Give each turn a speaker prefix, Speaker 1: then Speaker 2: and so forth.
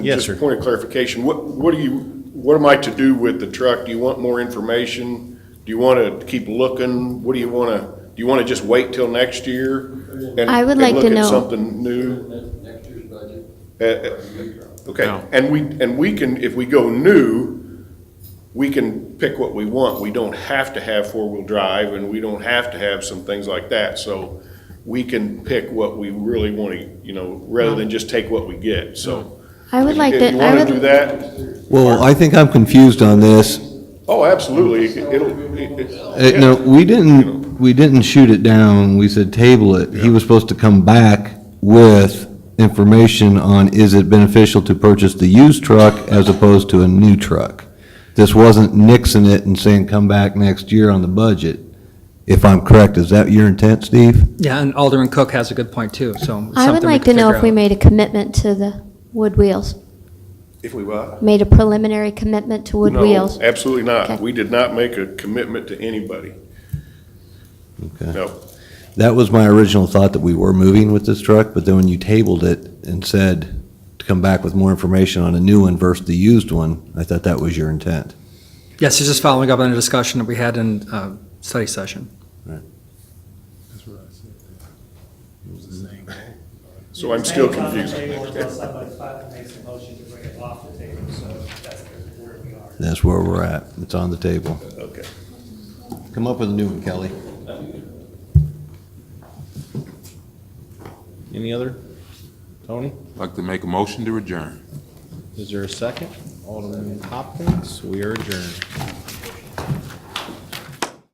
Speaker 1: Yes,
Speaker 2: Just a
Speaker 1: sir.
Speaker 2: Point of clarification, what, what do you, what am I to do with the truck? Do you want more information? Do you want to keep looking? What do you want to, do you want to just wait till next year? and-
Speaker 3: I would
Speaker 2: and
Speaker 3: like to
Speaker 2: Look
Speaker 3: know-
Speaker 2: at something new?
Speaker 4: Next year's budget.
Speaker 2: Uh, uh, Okay,
Speaker 1: No.
Speaker 2: and we, and we can, if we go new, we can pick what we want. We don't have to have four-wheel drive, and we don't have to have some things like that. So we can pick what we really want to, you know, rather than just take what we get, so.
Speaker 3: I would like to,
Speaker 2: If you
Speaker 3: I
Speaker 2: want to do
Speaker 3: would,
Speaker 2: that,
Speaker 5: Well, I think I'm confused on this.
Speaker 2: oh, absolutely, It- it'll, it- it-
Speaker 5: Uh, No, we didn't, we didn't shoot it down, we said table it. He was supposed to come back with information on is it beneficial to purchase the used truck as opposed to a new truck? This wasn't nixing it and saying come back next year on the budget, if I'm correct. Is that your intent, Steve?
Speaker 6: Yeah, and Alderman Cook has a good point too, so. it's
Speaker 3: I would
Speaker 6: something we
Speaker 3: like to
Speaker 6: could
Speaker 3: know
Speaker 6: figure
Speaker 3: if we
Speaker 6: out.
Speaker 3: made a commitment to the Wood Wheels,
Speaker 2: If we what?
Speaker 3: made a preliminary commitment to Wood
Speaker 2: No,
Speaker 3: Wheels.
Speaker 2: Absolutely not.
Speaker 3: Okay.
Speaker 2: We did not make a commitment to anybody.
Speaker 5: Okay.
Speaker 2: No.
Speaker 5: That was my original thought, that we were moving with this truck, but then when you tabled it and said to come back with more information on a new one versus the used one, I thought that was your intent.
Speaker 6: Yes, it's just following up on a discussion that we had in uh, study session.
Speaker 2: So I'm still
Speaker 7: It's on the
Speaker 2: confused.
Speaker 7: table until somebody finally makes a motion to bring it off the table, so that's where we are.
Speaker 5: That's where we're at. It's on the table.
Speaker 2: Okay.
Speaker 5: Come up with a new one, Kelly.
Speaker 1: Any other? Tony,
Speaker 4: Like to make a motion to adjourn.
Speaker 1: is there a second? Alderman Hopkins, we are adjourned.